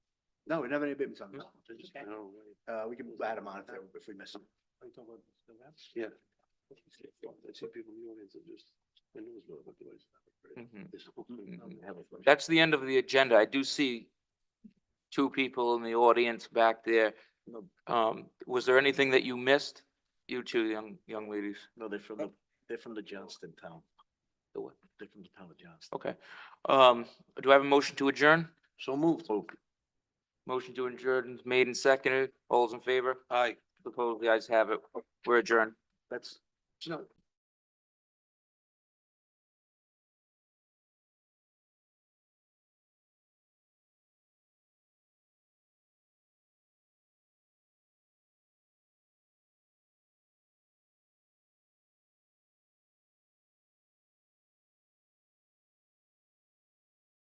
No, we don't have any abatements on this. one. Okay. No, Uh, we can add them on if, they- if we miss them. I thought about this, the maps? Yeah. I see people in the audience that just, their nose blow up the way. Mhm. This whole thing. Mm-hmm. Mhm. That's the end of the agenda. I do see two people in the audience back there. Um, was there anything that you missed? You two young, young ladies? No, they're from the, they're from the Johnston town. The what? They're from the town of Johnston. Okay. Um, do I have a motion to adjourn? So moved. Motion to adjourn is made and seconded. All's in favor? Aye. Opposed? The ayes have it. We're adjourned. That's, no,